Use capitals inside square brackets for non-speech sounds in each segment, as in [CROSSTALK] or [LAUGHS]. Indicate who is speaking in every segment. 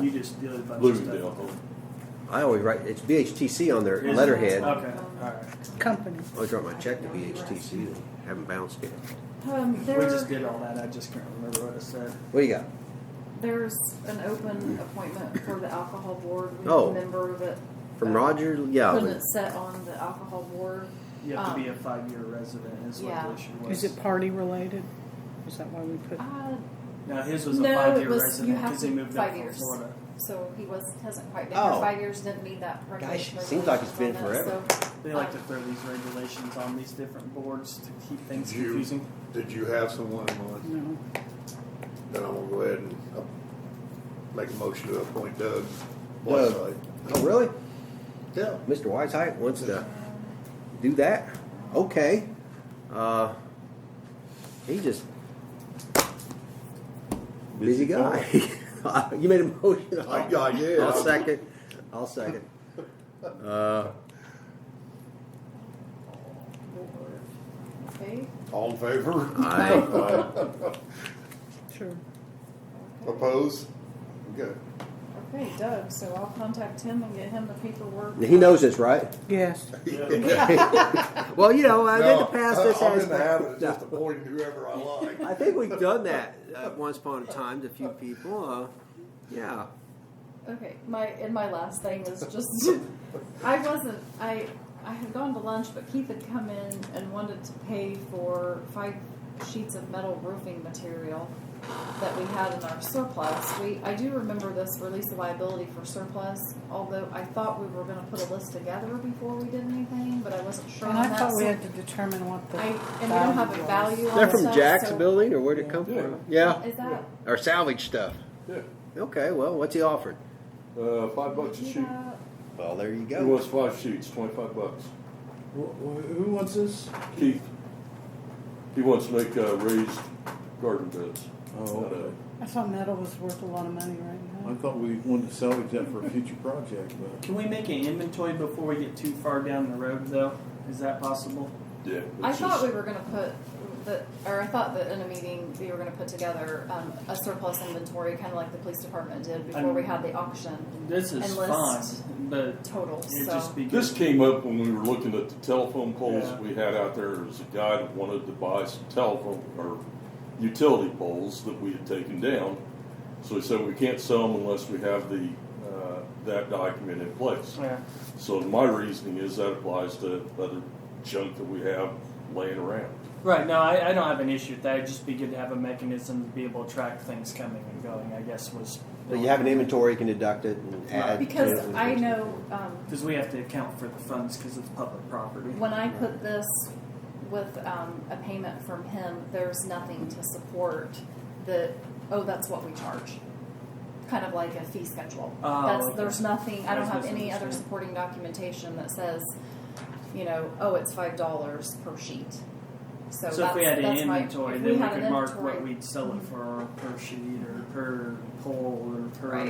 Speaker 1: You just did a bunch of stuff.
Speaker 2: Bloomingdale.
Speaker 3: I always write, it's BHTC on their
Speaker 1: Is it?
Speaker 3: letterhead. I
Speaker 1: Okay, all right.
Speaker 4: company.
Speaker 3: always write my check to BHTC and haven't bounced it.
Speaker 5: Um,
Speaker 1: We just
Speaker 5: there,
Speaker 1: did all that. I just can't remember what it said.
Speaker 3: What do you got?
Speaker 5: there's an open appointment for the alcohol board. We
Speaker 3: Oh.
Speaker 5: have a member that
Speaker 3: From
Speaker 5: uh,
Speaker 3: Roger
Speaker 5: couldn't
Speaker 3: Yalvin.
Speaker 5: sit on the alcohol board.
Speaker 1: You have to be
Speaker 5: Um,
Speaker 1: a five-year resident is what
Speaker 5: yeah.
Speaker 1: the issue was.
Speaker 4: Is it party related? Is that why we put?
Speaker 5: Uh,
Speaker 1: No, his was a
Speaker 5: No, it
Speaker 1: five-year
Speaker 5: was- you
Speaker 1: resident
Speaker 5: have
Speaker 1: because he
Speaker 5: to-
Speaker 1: moved
Speaker 5: five
Speaker 1: up from
Speaker 5: years.
Speaker 1: Florida.
Speaker 5: so he was hasn't quite been here.
Speaker 3: Oh.
Speaker 5: Five years didn't meet that. regulation-
Speaker 3: it seems like it's been
Speaker 5: regulations on that,
Speaker 1: They like to
Speaker 5: Uh.
Speaker 1: throw these regulations on these different boards to keep things
Speaker 6: You-
Speaker 1: confusing.
Speaker 6: Did you have someone in mind?
Speaker 4: No.
Speaker 6: Then I'm gonna go ahead and uh, make a motion to appoint Doug
Speaker 3: Doug.
Speaker 6: Whiteside.
Speaker 3: Oh, really?
Speaker 6: Yeah.
Speaker 3: Mr. Whiteside wants to do that? Okay. Uh, he just busy guy. [LAUGHS] you made a motion.
Speaker 6: I, I did.
Speaker 3: I'll second. I'll second. Uh,
Speaker 5: So, okay.
Speaker 6: All in favor?
Speaker 3: Aye.
Speaker 4: Sure.
Speaker 6: Oppose? Okay.
Speaker 5: Okay, Doug. So I'll contact him and get him the paperwork.
Speaker 3: he knows this, right?
Speaker 4: Yes.
Speaker 3: Well, you know, I did
Speaker 6: No,
Speaker 3: the past this
Speaker 6: I'm in
Speaker 3: aspect.
Speaker 6: the habit of just
Speaker 3: No.
Speaker 6: appointing whoever I
Speaker 3: [LAUGHS]
Speaker 6: like.
Speaker 3: I think we've done that uh, once upon a time to a few people. Uh, yeah.
Speaker 5: Okay, my and my last thing is just I wasn't I I had gone to lunch, but Keith had come in and wanted to pay for five sheets of metal roofing material that we had in our surplus. We I do remember this release of liability for surplus, although I thought we were going to put a list together before we did anything, but I wasn't sure
Speaker 4: And
Speaker 5: on
Speaker 4: I
Speaker 5: that.
Speaker 4: thought we
Speaker 5: so
Speaker 4: had to determine what the.
Speaker 5: I and we don't have a
Speaker 4: was.
Speaker 5: value. on
Speaker 3: They're from
Speaker 5: stuff,
Speaker 3: Jack's
Speaker 5: Oh, so-
Speaker 3: building, or where'd it come
Speaker 2: Yeah.
Speaker 3: from? Yeah.
Speaker 5: Is that?
Speaker 3: Or salvage stuff.
Speaker 2: Yeah,
Speaker 3: Okay, well, what's he offered?
Speaker 2: uh, five bucks a sheet.
Speaker 5: Yeah.
Speaker 3: Well, there you
Speaker 2: He wants five sheets, twenty-five bucks.
Speaker 7: Who wants this?
Speaker 2: Keith, he wants to make, uh, raised garden beds.
Speaker 7: Oh,
Speaker 2: Out of-
Speaker 7: okay.
Speaker 4: I thought metal was worth a lot of money right
Speaker 7: I
Speaker 4: now.
Speaker 7: thought we wanted to salvage that for a future project, but
Speaker 1: Can we make an inventory before we get too far down the road, though? Is that possible?
Speaker 2: Yeah.
Speaker 5: I
Speaker 2: it's
Speaker 5: thought
Speaker 2: just-
Speaker 5: we were gonna put the, or I thought that in a meeting, we were gonna put together, um, a surplus inventory, kinda like the police department did before we had the auction
Speaker 1: This is
Speaker 5: And
Speaker 1: fine,
Speaker 5: list.
Speaker 1: but
Speaker 5: total,
Speaker 1: it'd just
Speaker 5: so.
Speaker 1: be good.
Speaker 2: This came up when we were looking at the telephone poles
Speaker 1: Yeah.
Speaker 2: we had out there. There was a guy that wanted to buy some telephone or utility poles that we had taken down. So he said we can't sell them unless we have the uh, that document in place.
Speaker 1: Yeah.
Speaker 2: So my reasoning is that applies to other junk that we have laying around.
Speaker 1: Right, no, I, I don't have an issue with that. It'd just be good to have a mechanism to be able to track things coming and going, I guess, was.
Speaker 3: But you have an inventory, you can deduct it and add.
Speaker 5: Because I know, um,
Speaker 1: Because we have to account for the funds because it's public property.
Speaker 5: when I put this with, um, a payment from him, there's nothing to support that, oh, that's what we charge. Kind of like a fee schedule.
Speaker 1: Oh,
Speaker 5: That's,
Speaker 1: okay.
Speaker 5: there's nothing, I
Speaker 1: I
Speaker 5: don't
Speaker 1: was
Speaker 5: have any other
Speaker 1: misunderstanding.
Speaker 5: supporting documentation that says, you know, oh, it's five dollars per sheet. So
Speaker 1: So if we had
Speaker 5: that's-
Speaker 1: an
Speaker 5: that's my-
Speaker 1: inventory,
Speaker 5: if
Speaker 1: then we
Speaker 5: had an
Speaker 1: could mark
Speaker 5: inventory-
Speaker 1: what we'd sell it for per sheet or per pole or per.
Speaker 5: Right.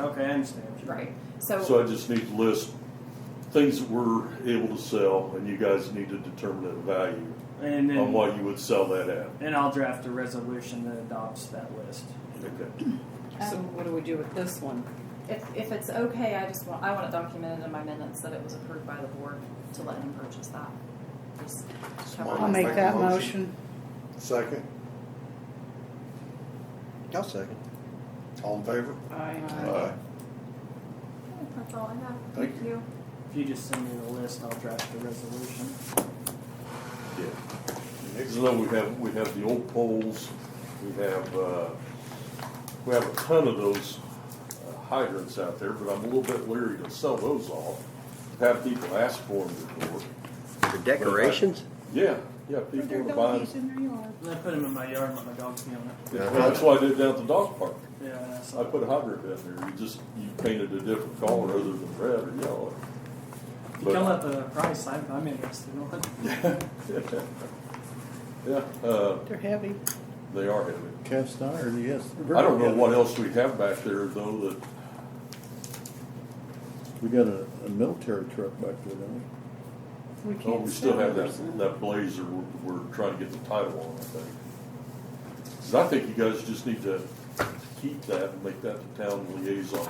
Speaker 1: Okay, I understand. what you're-
Speaker 5: Right, so.
Speaker 2: So I just need to list things that we're able to sell, and you guys need to determine the value
Speaker 1: And
Speaker 3: Oh,
Speaker 2: on
Speaker 1: then,
Speaker 2: what you would sell that at.
Speaker 1: and I'll draft a resolution that adopts that list.
Speaker 2: Okay.
Speaker 4: So what do we do with this one?
Speaker 5: If, if it's okay, I just want, I want it documented in my minutes that it was approved by the board to let him purchase that. Just cover
Speaker 6: I'll
Speaker 4: I'll
Speaker 5: it.
Speaker 4: make
Speaker 6: make
Speaker 4: that
Speaker 6: a motion.
Speaker 4: motion.
Speaker 6: Second,
Speaker 3: I'll second.
Speaker 6: all in favor?
Speaker 4: Aye.
Speaker 6: Aye.
Speaker 5: That's all I have.
Speaker 6: Thank
Speaker 5: you.
Speaker 1: If you just send me the list, I'll draft the resolution.
Speaker 2: Yeah. So then we have, we have the old poles, we have, uh, we have a ton of those uh, hydrants out there, but I'm a little bit leery to sell those off. Have people ask for them before.
Speaker 3: For decorations?
Speaker 2: Yeah, yeah, people are buying.
Speaker 1: And I put them in my yard and let my dogs be on it.
Speaker 2: Yeah, That's why I did down at the dog park.
Speaker 1: Yeah, and I saw
Speaker 2: I put a hydrant in there, you just, you painted a different color other than red or yellow. [LAUGHS]
Speaker 1: If you come up with a price, I'm, I'm interested in one.
Speaker 2: Yeah, uh,
Speaker 4: They're heavy.
Speaker 2: they are heavy.
Speaker 7: cast iron, yes.
Speaker 2: I don't know what else we have back there though that
Speaker 7: We got a, a military truck back there, don't
Speaker 4: We
Speaker 2: Oh,
Speaker 4: can't
Speaker 2: we still
Speaker 4: sell
Speaker 2: have
Speaker 4: those.
Speaker 2: that, that blazer we're, we're trying to get the title on, I think. 'Cause I think you guys just need to keep that and make that the town liaison